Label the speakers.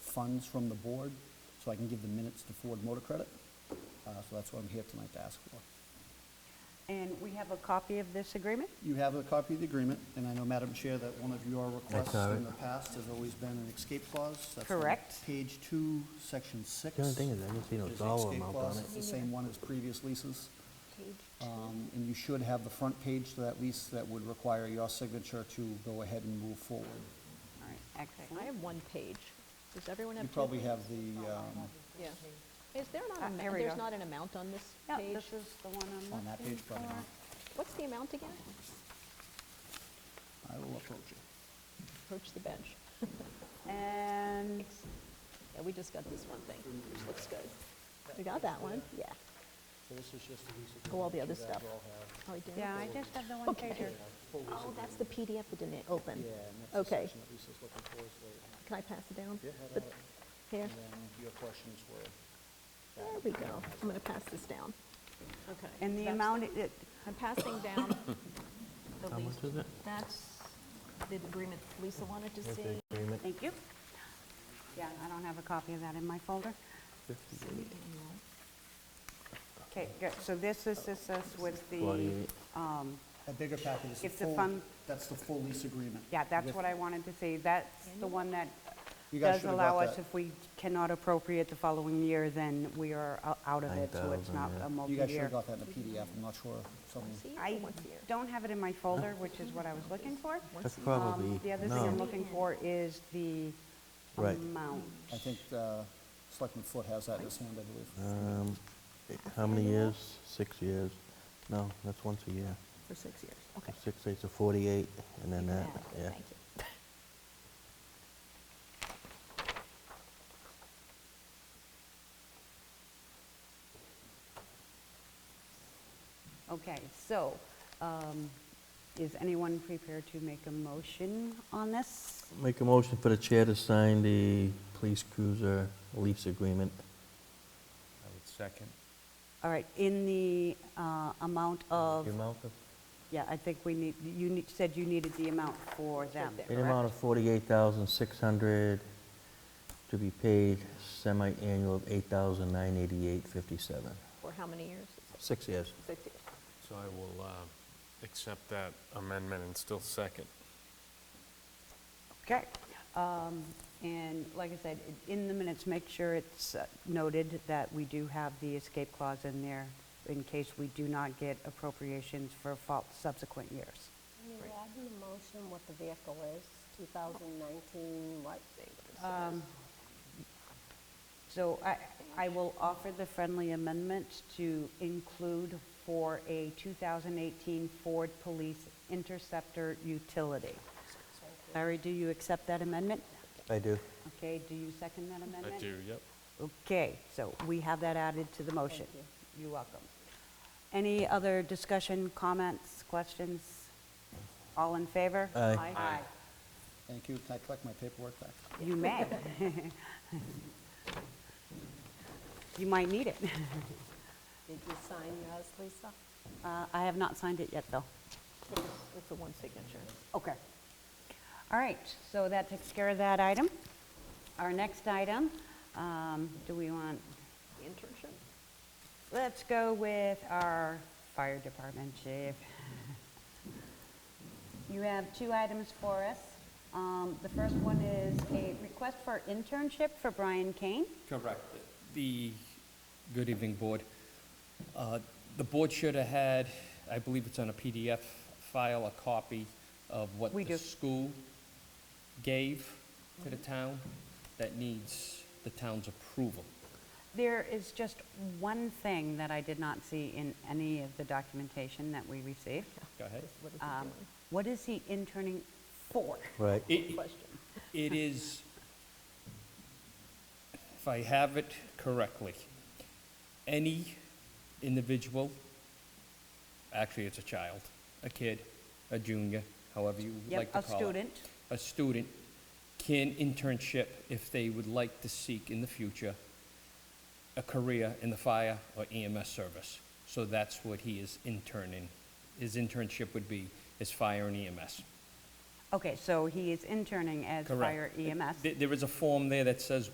Speaker 1: funds from the board so I can give the minutes to Ford Motor Credit. Uh, So that's what I'm here tonight to ask for.
Speaker 2: And we have a copy of this agreement?
Speaker 1: You have a copy of the agreement, and I know, Madam Chair, that one of your requests
Speaker 3: all right.
Speaker 1: in the past has always been an escape clause. That's on
Speaker 2: Correct.
Speaker 1: Page two, section six.
Speaker 3: The only thing is, I didn't see no
Speaker 1: There's an
Speaker 3: dollar
Speaker 1: escape
Speaker 3: amount
Speaker 1: clause.
Speaker 3: on it.
Speaker 1: It's the same one as previous leases. Um, And you should have the front page to that lease that would require your signature to go ahead and move forward.
Speaker 2: All right,
Speaker 4: I
Speaker 2: excellent.
Speaker 4: have one page. Does everyone have
Speaker 1: You
Speaker 4: two?
Speaker 1: probably have the, um,
Speaker 4: Yeah. Is there
Speaker 2: Ah,
Speaker 4: not, an-
Speaker 2: here we
Speaker 4: there's
Speaker 2: go.
Speaker 4: not an amount on this
Speaker 2: Yeah,
Speaker 4: page?
Speaker 2: this is the one I'm
Speaker 1: on that
Speaker 2: looking
Speaker 1: page, probably
Speaker 2: for.
Speaker 1: not.
Speaker 4: What's the amount again?
Speaker 1: I will approach you.
Speaker 4: Approach the bench.
Speaker 2: And
Speaker 4: Yeah, we just got this one thing, which looks good. We got that one, yeah.
Speaker 1: So this is just the lease
Speaker 4: Oh, all the other stuff. Are we doing
Speaker 2: Yeah, I
Speaker 4: this?
Speaker 2: just have the one
Speaker 4: Okay.
Speaker 2: pager.
Speaker 4: Oh, that's the PDF that didn't open. Okay. Can I pass it down? The- Here,
Speaker 1: your questions were.
Speaker 4: there we go. I'm going to pass this down. Okay.
Speaker 2: And the amount, it- it-
Speaker 4: I'm passing down the
Speaker 3: How
Speaker 4: lease.
Speaker 3: much is it?
Speaker 4: That's the agreement Lisa wanted to
Speaker 3: Where's
Speaker 4: see.
Speaker 3: the agreement?
Speaker 2: thank you. Yeah, I don't have a copy of that in my folder. Okay, good, so this is, this is with the,
Speaker 3: Forty-eight.
Speaker 2: um,
Speaker 1: A bigger packet is the
Speaker 2: It's the
Speaker 1: full,
Speaker 2: fund-
Speaker 1: that's the full lease agreement.
Speaker 2: yeah, that's
Speaker 1: With-
Speaker 2: what I wanted to see. That's the one that
Speaker 1: You guys
Speaker 2: does
Speaker 1: should have got
Speaker 2: allow us,
Speaker 1: that.
Speaker 2: if we cannot appropriate the following year, then we are o- out of it, so it's
Speaker 3: 9,000,
Speaker 2: not
Speaker 1: You guys
Speaker 2: a
Speaker 3: yeah.
Speaker 1: should
Speaker 2: multi-year.
Speaker 1: have got that in a PDF, I'm not sure, someone,
Speaker 4: Once a year or
Speaker 2: I
Speaker 4: once a year?
Speaker 2: don't have it in my folder, which is what I was looking for.
Speaker 3: That's
Speaker 2: Um,
Speaker 3: probably,
Speaker 2: The other thing I'm
Speaker 3: no,
Speaker 2: looking for is the
Speaker 3: Right.
Speaker 2: amount.
Speaker 1: I think uh, Selectman Foot has that in his hand, I believe.
Speaker 3: um, how many years? Six years? No, that's once a year.
Speaker 4: For six years, okay.
Speaker 3: So Six, eight, so 48, and then that,
Speaker 4: Yeah,
Speaker 3: yeah.
Speaker 4: Thank you.
Speaker 2: Okay, so, um, is anyone prepared to make a motion on this?
Speaker 3: Make a motion for the chair to sign the police cruiser lease agreement.
Speaker 5: I would second.
Speaker 2: All right, in the uh, amount of,
Speaker 3: The amount of,
Speaker 2: yeah, I think we need, you need- said you needed the amount for them,
Speaker 4: there.
Speaker 3: an amount
Speaker 2: correct?
Speaker 3: of 48,600 to be paid semi-annual of 8,988.57.
Speaker 4: For how many years?
Speaker 3: Six years.
Speaker 4: Six years.
Speaker 5: So I will uh, accept that amendment and still second.
Speaker 2: Okay. Um, And like I said, i- in the minutes, make sure it's uh, noted that we do have the escape clause in there in case we do not get appropriations for fol- subsequent years.
Speaker 6: Can you add in the motion what the vehicle is, 2019, what?
Speaker 2: Um, So I, I will offer the friendly amendment to include for a 2018 Ford Police Interceptor utility. Larry, do you accept that amendment?
Speaker 3: I do.
Speaker 2: Okay, do you second that amendment?
Speaker 5: I do, yep.
Speaker 2: Okay, so we have that added to the motion. You're welcome. Any other discussion, comments, questions? All in favor?
Speaker 3: Aye.
Speaker 2: Aye.
Speaker 1: Thank you, can I collect my paperwork back?
Speaker 2: You may. You might need it.
Speaker 6: Did you sign yours, Lisa?
Speaker 2: Uh, I have not signed it yet, though.
Speaker 4: It's a one signature.
Speaker 2: Okay. All right, so that takes care of that item. Our next item, um, do we want,
Speaker 4: The Internship?
Speaker 2: let's go with our fire department chief. You have two items for us. Um, The first one is a request for internship for Brian Kane.
Speaker 7: Correct. The, good evening, Board. Uh, The Board should have had, I believe it's on a PDF file, a copy of what
Speaker 2: We do.
Speaker 7: the school gave to the town that needs the town's approval.
Speaker 2: There is just one thing that I did not see in any of the documentation that we received.
Speaker 7: Go ahead.
Speaker 4: What is it
Speaker 2: Um,
Speaker 4: doing?
Speaker 2: What is he interning for?
Speaker 3: Right.
Speaker 7: It-
Speaker 4: Question.
Speaker 7: It is, if I have it correctly, any individual, actually it's a child, a kid, a junior, however you
Speaker 2: Yep,
Speaker 7: like to
Speaker 2: a
Speaker 7: call it.
Speaker 2: student.
Speaker 7: A student can internship if they would like to seek in the future a career in the fire or EMS service. So that's what he is interning. His internship would be is fire and E EMS.
Speaker 2: Okay, so he is interning as
Speaker 7: Correct.
Speaker 2: fire E EMS.
Speaker 7: There- There is a form there that says